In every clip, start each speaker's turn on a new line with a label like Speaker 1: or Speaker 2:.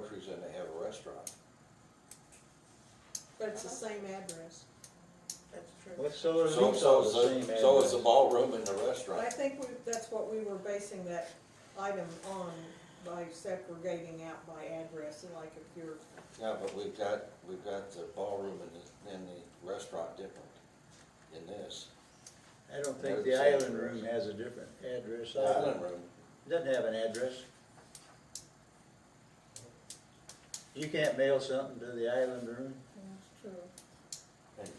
Speaker 1: Bridge and they have a restaurant.
Speaker 2: But it's the same address.
Speaker 3: That's true.
Speaker 4: What's so,
Speaker 1: So, so,
Speaker 4: so,
Speaker 1: so, so is the ballroom and the
Speaker 2: I
Speaker 1: restaurant.
Speaker 2: think we, that's what we were basing that item on, by segregating out by address, and like if you're,
Speaker 1: Yeah, but we've got, we've got the ballroom and the, and the restaurant different in this.
Speaker 4: I don't think the island room has a different address.
Speaker 1: The Island room,
Speaker 4: Doesn't have an address. You can't mail something to the island room.
Speaker 3: That's true.
Speaker 1: and,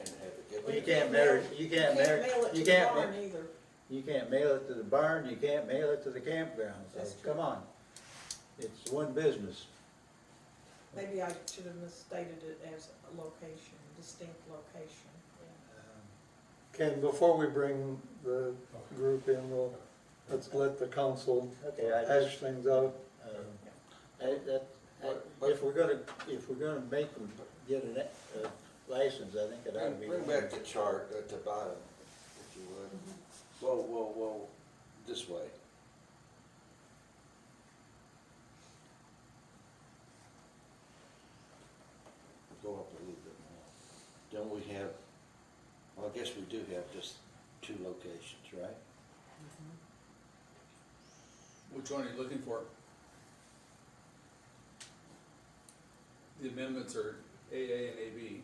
Speaker 1: and have it given.
Speaker 2: Well,
Speaker 4: You
Speaker 2: you
Speaker 4: can't
Speaker 2: can't
Speaker 4: mail,
Speaker 2: mail-
Speaker 4: you
Speaker 2: you
Speaker 4: can't
Speaker 2: can't
Speaker 4: mail,
Speaker 2: mail it to
Speaker 4: you
Speaker 2: the
Speaker 4: can't,
Speaker 2: barn
Speaker 4: ma-
Speaker 2: either.
Speaker 4: you can't mail it to the barn, you can't mail it to the campground, so
Speaker 1: That's true.
Speaker 4: come on. It's one business.
Speaker 2: Maybe I should have misstated it as a location, distinct location.
Speaker 4: Uh,
Speaker 5: Ken, before we bring the group in, we'll, let's let the council
Speaker 4: Okay, I just,
Speaker 5: hash things out.
Speaker 4: um, I, that, I-
Speaker 1: But- but-
Speaker 4: if we're gonna, if we're gonna make them get an a, a license, I think it ought to
Speaker 1: Bring,
Speaker 4: be.
Speaker 1: bring back the chart at the bottom, if you would. Whoa, whoa, whoa, this way. Go up a little bit more. Don't we have, well, I guess we do have just two locations, right?
Speaker 6: Which one are you looking for? The amendments are AA and AB,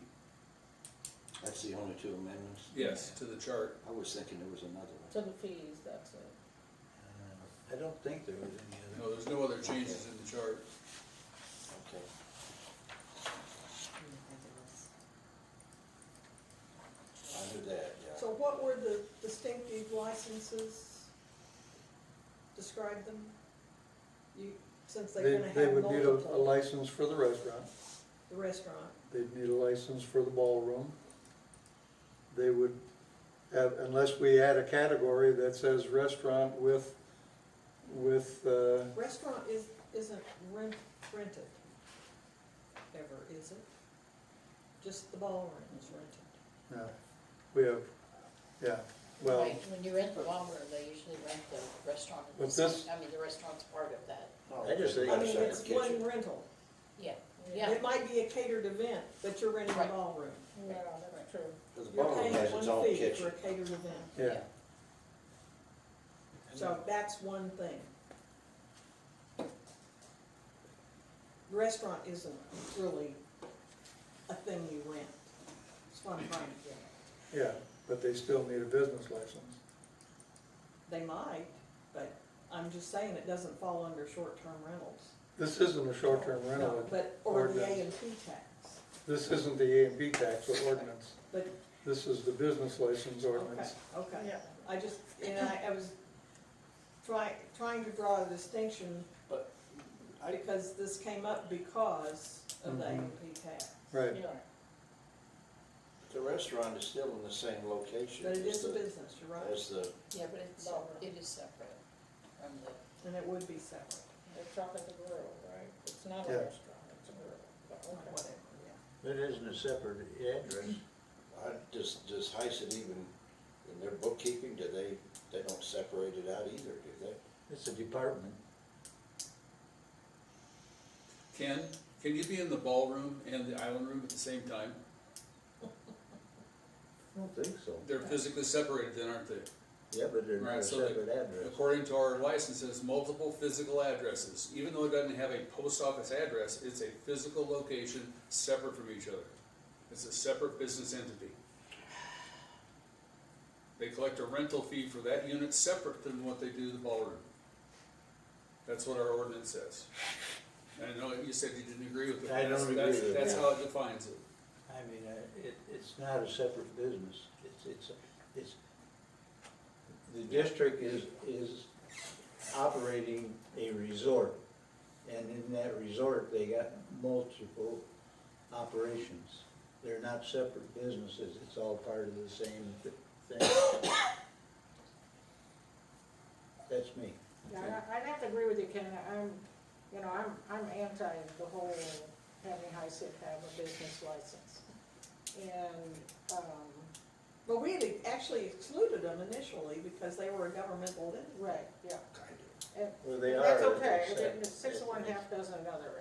Speaker 1: That's the only two amendments?
Speaker 6: yes, to the chart.
Speaker 1: I was thinking there was another
Speaker 3: To
Speaker 1: one.
Speaker 3: the fees, that's it.
Speaker 4: Uh, I don't think there was any other.
Speaker 6: No, there's no other changes in the chart.
Speaker 1: Okay. I knew that, yeah.
Speaker 2: So what were the distinctive licenses? Describe them? You, since they're
Speaker 5: They,
Speaker 2: gonna
Speaker 5: they
Speaker 2: have
Speaker 5: would need a a
Speaker 2: multiple,
Speaker 5: license for the restaurant,
Speaker 2: the restaurant,
Speaker 5: they'd need a license for the ballroom. They would have, unless we add a category that says restaurant with, with, uh,
Speaker 2: restaurant is, isn't rent, rented ever, is it? Just the ballroom is rented.
Speaker 5: no, we have, yeah, well,
Speaker 7: Right, When you rent the longer, they usually rent the restaurant. and the
Speaker 5: What's this?
Speaker 7: sing- I mean, the restaurant's part of that,
Speaker 4: I just think-
Speaker 1: Got
Speaker 2: I
Speaker 1: a
Speaker 2: mean,
Speaker 1: separate
Speaker 2: it's
Speaker 1: kitchen.
Speaker 2: one rental.
Speaker 7: yeah, yeah.
Speaker 2: It might be a catered event, but you're renting a
Speaker 7: Right.
Speaker 2: ballroom.
Speaker 3: No, that's true.
Speaker 1: But The
Speaker 2: You're
Speaker 1: ballroom
Speaker 2: paying
Speaker 1: has its own
Speaker 2: one fee for
Speaker 1: kitchen.
Speaker 2: a catered event.
Speaker 5: yeah.
Speaker 2: So that's one thing. Restaurant isn't really a thing you rent. It's what I'm trying to get at.
Speaker 5: Yeah, but they still need a business license.
Speaker 2: They might, but I'm just saying it doesn't fall under short-term rentals.
Speaker 5: This isn't a short-term rental,
Speaker 2: But, or the A
Speaker 5: Ordinance.
Speaker 2: and P tax.
Speaker 5: this isn't the A and B tax ordinance,
Speaker 2: But,
Speaker 5: this is the business license
Speaker 2: okay,
Speaker 5: ordinance.
Speaker 2: okay. I just, and I, I was trying, trying to draw a distinction,
Speaker 6: But I,
Speaker 2: because this came up because of the A and P tax.
Speaker 5: Mm-hmm. Right,
Speaker 7: You're right.
Speaker 1: The restaurant is still in the same location.
Speaker 2: But it
Speaker 1: as
Speaker 2: is a
Speaker 1: the-
Speaker 2: business, you're right,
Speaker 1: As the,
Speaker 7: Yeah, but it's,
Speaker 3: Lower.
Speaker 7: it is separate from the,
Speaker 2: and it would be separate.
Speaker 3: They're talking the rural, right? It's not a
Speaker 5: Yeah.
Speaker 3: restaurant, it's a rural. but okay.
Speaker 2: whatever, yeah.
Speaker 4: It isn't a separate address.
Speaker 1: I, does, does Heisen even, in their bookkeeping, do they, they don't separate it out either, do they?
Speaker 4: It's a department.
Speaker 6: Ken, can you be in the ballroom and the island room at the same time?
Speaker 4: I don't think so.
Speaker 6: They're physically separated then, aren't they?
Speaker 4: Yeah, but they're not
Speaker 6: Right,
Speaker 4: a
Speaker 6: so they-
Speaker 4: separate address.
Speaker 6: According to our licenses, multiple physical addresses, even though it doesn't have a post office address, it's a physical location separate from each other. It's a separate business entity. They collect a rental fee for that unit separate than what they do the ballroom. That's what our ordinance says. And I know you said you didn't agree with it. but
Speaker 4: I don't
Speaker 6: that's-
Speaker 4: agree
Speaker 6: that's-
Speaker 4: with it,
Speaker 6: That's
Speaker 4: yeah.
Speaker 6: how it defines it.
Speaker 4: I mean, uh, it, it's not a separate business. It's, it's, it's, the district is, is operating a resort. And in that resort, they got multiple operations. They're not separate businesses. It's all part of the same thi- thing. That's me.
Speaker 3: Yeah, I- I'd have to agree with you, Ken, I'm, you know, I'm, I'm anti the whole having HICID have a business license. And, um,
Speaker 2: But we had actually excluded them initially because they were a governmental entity.
Speaker 3: right, yeah,
Speaker 1: Kind of.
Speaker 3: and
Speaker 4: Well, they are.
Speaker 3: that's
Speaker 4: as I
Speaker 3: okay,
Speaker 4: said.
Speaker 3: six of one, oh half dozen of another,